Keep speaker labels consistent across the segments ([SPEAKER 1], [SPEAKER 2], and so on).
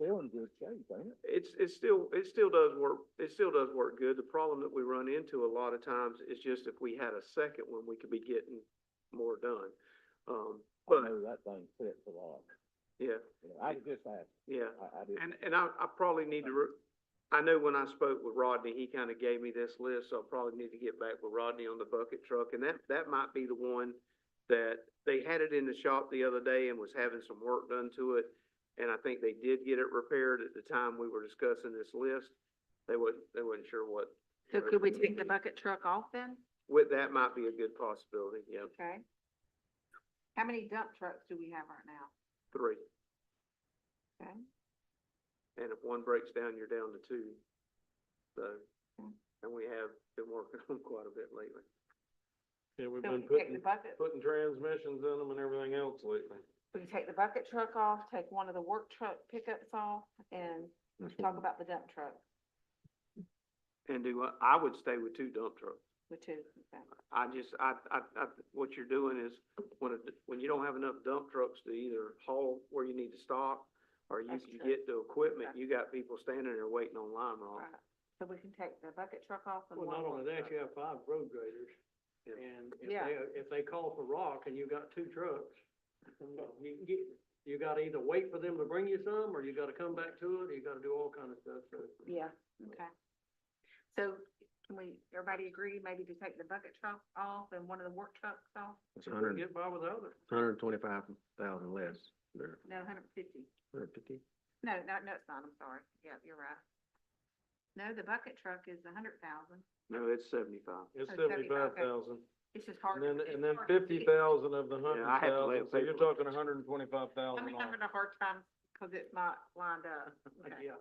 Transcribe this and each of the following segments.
[SPEAKER 1] this change, ain't it?
[SPEAKER 2] It's, it's still, it still does work, it still does work good. The problem that we run into a lot of times is just if we had a second one, we could be getting more done. Um,
[SPEAKER 1] I
[SPEAKER 2] but,
[SPEAKER 1] know that thing fits a lot.
[SPEAKER 2] yeah,
[SPEAKER 1] You know, I was just asking,
[SPEAKER 2] yeah.
[SPEAKER 1] I, I didn't.
[SPEAKER 2] And, and I, I probably need to, re- I know when I spoke with Rodney, he kind of gave me this list, so I probably need to get back with Rodney on the bucket truck. And that, that might be the one that they had it in the shop the other day and was having some work done to it. And I think they did get it repaired at the time we were discussing this list. They wasn't, they wasn't sure what.
[SPEAKER 3] So could we take the bucket truck off then?
[SPEAKER 2] With, that might be a good possibility, yeah,
[SPEAKER 3] Okay. How many dump trucks do we have right now?
[SPEAKER 2] three.
[SPEAKER 3] Okay,
[SPEAKER 2] And if one breaks down, you're down to two. So, and we have been working on quite a bit lately.
[SPEAKER 4] Yeah, we've
[SPEAKER 3] so we
[SPEAKER 4] been
[SPEAKER 3] can take the
[SPEAKER 4] putting,
[SPEAKER 3] bucket,
[SPEAKER 4] putting transmissions in them and everything else lately.
[SPEAKER 3] we can take the bucket truck off, take one of the work truck pickups off and talk about the dump truck,
[SPEAKER 2] And do, what- I would stay with two dump trucks.
[SPEAKER 3] which is, okay.
[SPEAKER 2] I just, I, I, I, what you're doing is, when, it- when you don't have enough dump trucks to either haul where you need to stop, or you,
[SPEAKER 3] That's
[SPEAKER 2] you
[SPEAKER 3] true.
[SPEAKER 2] get the equipment, you got people standing there waiting on Lime Rock.
[SPEAKER 3] Right. So we can take the bucket truck off and
[SPEAKER 5] Oh.
[SPEAKER 3] one
[SPEAKER 5] Well, not
[SPEAKER 3] more
[SPEAKER 5] only that,
[SPEAKER 3] truck.
[SPEAKER 5] you have five road graders,
[SPEAKER 2] Yeah.
[SPEAKER 5] and if
[SPEAKER 3] Yeah.
[SPEAKER 5] they, if they call for rock and you got two trucks, you can get, you gotta either wait for them to bring you some, or you gotta come back to it, or you gotta do all kind of stuff, so.
[SPEAKER 3] Yeah, okay. So can we, everybody agree maybe to take the bucket truck off and one of the work trucks off?
[SPEAKER 4] It's
[SPEAKER 5] if we can Get by without it.
[SPEAKER 4] hundred and twenty-five thousand less, or
[SPEAKER 3] No, hundred and fifty.
[SPEAKER 4] hundred and fifty.
[SPEAKER 3] No, no, no, it's not, I'm sorry. Yep, you're right. No, the bucket truck is a hundred thousand.
[SPEAKER 2] No, it's seventy-five.
[SPEAKER 4] It's
[SPEAKER 3] Oh, seventy, okay.
[SPEAKER 4] seventy-five thousand,
[SPEAKER 3] It's just hard.
[SPEAKER 4] and
[SPEAKER 3] to-
[SPEAKER 4] then,
[SPEAKER 3] it's
[SPEAKER 4] and then
[SPEAKER 3] hard to
[SPEAKER 4] fifty
[SPEAKER 3] see.
[SPEAKER 4] thousand of the
[SPEAKER 2] Yeah,
[SPEAKER 4] hundred
[SPEAKER 2] I have to lay
[SPEAKER 4] thousand,
[SPEAKER 2] it
[SPEAKER 4] so you're
[SPEAKER 2] paperwork.
[SPEAKER 4] talking hundred and twenty-five thousand
[SPEAKER 3] I'm having a hard time because it's not lined up. Okay.
[SPEAKER 5] Yeah,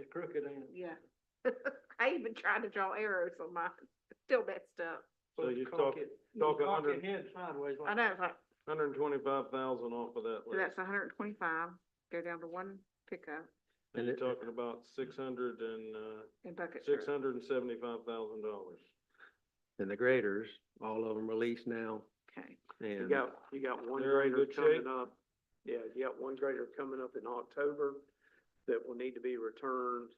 [SPEAKER 5] it's crooked and.
[SPEAKER 3] Yeah. I even tried to draw arrows on mine, still messed up.
[SPEAKER 4] So you're
[SPEAKER 5] Cock
[SPEAKER 4] talk-
[SPEAKER 5] it-
[SPEAKER 4] talking
[SPEAKER 5] cock
[SPEAKER 4] under-
[SPEAKER 5] it head sideways
[SPEAKER 3] I
[SPEAKER 5] like.
[SPEAKER 3] know, it's like,
[SPEAKER 4] Hundred and twenty-five thousand off of that
[SPEAKER 3] so
[SPEAKER 4] list.
[SPEAKER 3] that's a hundred and twenty-five, go down to one pickup
[SPEAKER 4] And you're talking about six hundred and, uh,
[SPEAKER 3] and bucket
[SPEAKER 4] six
[SPEAKER 3] truck.
[SPEAKER 4] hundred and seventy-five thousand dollars.
[SPEAKER 6] And the graders, all of them released now
[SPEAKER 3] Okay,
[SPEAKER 2] You
[SPEAKER 6] and
[SPEAKER 2] got, you got one
[SPEAKER 4] They're in
[SPEAKER 2] grader
[SPEAKER 4] good shape.
[SPEAKER 2] coming up, yeah, you got one grader coming up in October that will need to be returned.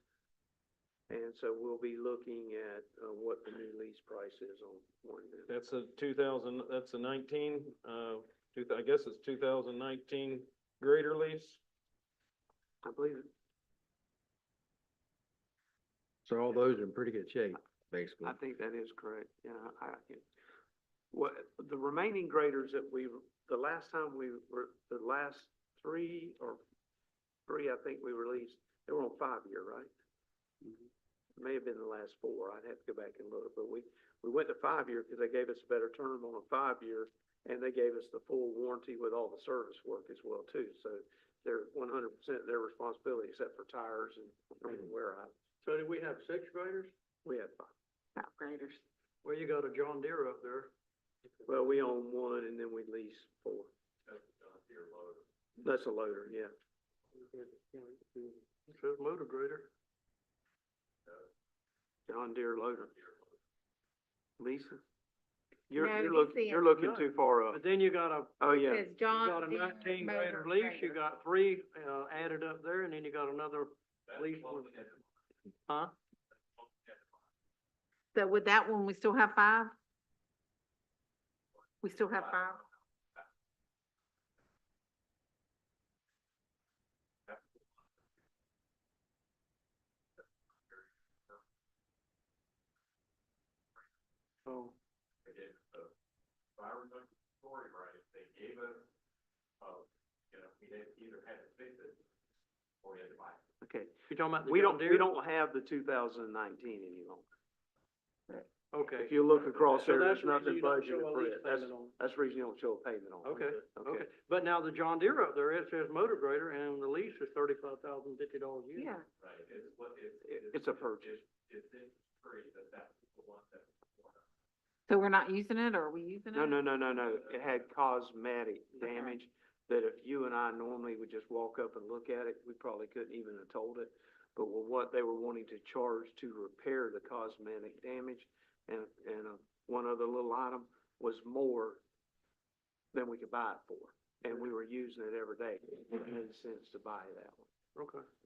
[SPEAKER 2] And so we'll be looking at, uh, what the new lease price is on one of them.
[SPEAKER 4] That's a two thousand, that's a nineteen, uh, two, I guess it's two thousand nineteen grader lease.
[SPEAKER 2] I believe it.
[SPEAKER 6] so all those are in pretty good shape, basically.
[SPEAKER 2] I think that is correct, yeah, I, I- what, the remaining graders that we, the last time we were, the last three or three, I think we released, they were on five-year, right? It May have been the last four, I'd have to go back and look, but we, we went to five-year because they gave us a better term on a five-year, and they gave us the full warranty with all the service work as well too, so they're one hundred percent their responsibility except for tires and and wear out,
[SPEAKER 5] So do we have six graders?
[SPEAKER 2] we had five.
[SPEAKER 3] top graders.
[SPEAKER 5] Well, you got a John Deere up there.
[SPEAKER 2] Well, we own one and then we lease four. That's a loader, yeah.
[SPEAKER 5] It says motor grader.
[SPEAKER 2] John Deere loader. Lisa?
[SPEAKER 3] No,
[SPEAKER 2] You're, you're
[SPEAKER 3] he's
[SPEAKER 2] looking,
[SPEAKER 3] saying-
[SPEAKER 2] you're looking too far up.
[SPEAKER 5] But then you got a
[SPEAKER 2] Oh, yeah.
[SPEAKER 3] Says
[SPEAKER 5] You
[SPEAKER 3] John.
[SPEAKER 5] got a
[SPEAKER 3] Deere
[SPEAKER 5] nineteen
[SPEAKER 3] Motor
[SPEAKER 5] grader lease, you
[SPEAKER 3] Grader.
[SPEAKER 5] got three, uh, added up there, and then you got another lease with. Huh?
[SPEAKER 3] So with that one, we still have five? We still have five?
[SPEAKER 5] So,
[SPEAKER 2] uh, Okay.
[SPEAKER 5] you're talking about the
[SPEAKER 2] We
[SPEAKER 5] John
[SPEAKER 2] don't, we
[SPEAKER 5] Deere?
[SPEAKER 2] don't have the two thousand and nineteen any longer. If
[SPEAKER 5] Okay.
[SPEAKER 2] you look across
[SPEAKER 5] So
[SPEAKER 2] there,
[SPEAKER 5] that's
[SPEAKER 2] there's
[SPEAKER 5] the reason
[SPEAKER 2] nothing
[SPEAKER 5] you don't show
[SPEAKER 2] budgeted
[SPEAKER 5] a
[SPEAKER 2] for
[SPEAKER 5] lease
[SPEAKER 2] it. That's,
[SPEAKER 5] payment on-
[SPEAKER 2] that's the reason you don't show a payment on it.
[SPEAKER 5] Okay, okay. But now the John Deere up there, it says motor grader, and the lease is thirty-five thousand fifty dollars a year.
[SPEAKER 3] Yeah,
[SPEAKER 2] It- It's a purchase.
[SPEAKER 3] so we're not using it, or are we using it?
[SPEAKER 2] No, no, no, no, no. It had cosmetic damage that if you and I normally would just walk up and look at it, we probably couldn't even have told it. But with what they were wanting to charge to repair the cosmetic damage and, and uh, one other little item was more than we could buy it for. And we were using it every day. It made sense to buy that one.
[SPEAKER 5] Okay.